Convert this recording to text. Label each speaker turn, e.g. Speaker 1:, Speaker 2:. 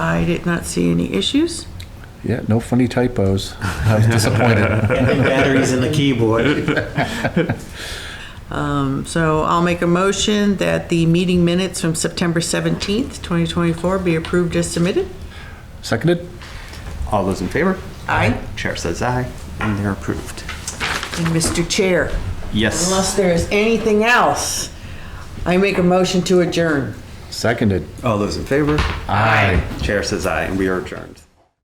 Speaker 1: I did not see any issues.
Speaker 2: Yeah, no funny typos. I was disappointed.
Speaker 3: And the batteries in the keyboard.
Speaker 1: Um, So I'll make a motion that the meeting minutes from September 17th, 2024 be approved as submitted.
Speaker 2: Seconded?
Speaker 3: All those in favor?
Speaker 1: Aye.
Speaker 3: Chair says aye, and they're approved.
Speaker 1: And Mr. Chair,
Speaker 3: Yes.
Speaker 1: unless there is anything else, I make a motion to adjourn.
Speaker 2: Seconded.
Speaker 3: All those in favor?
Speaker 2: Aye.
Speaker 3: Chair says aye, and we are adjourned.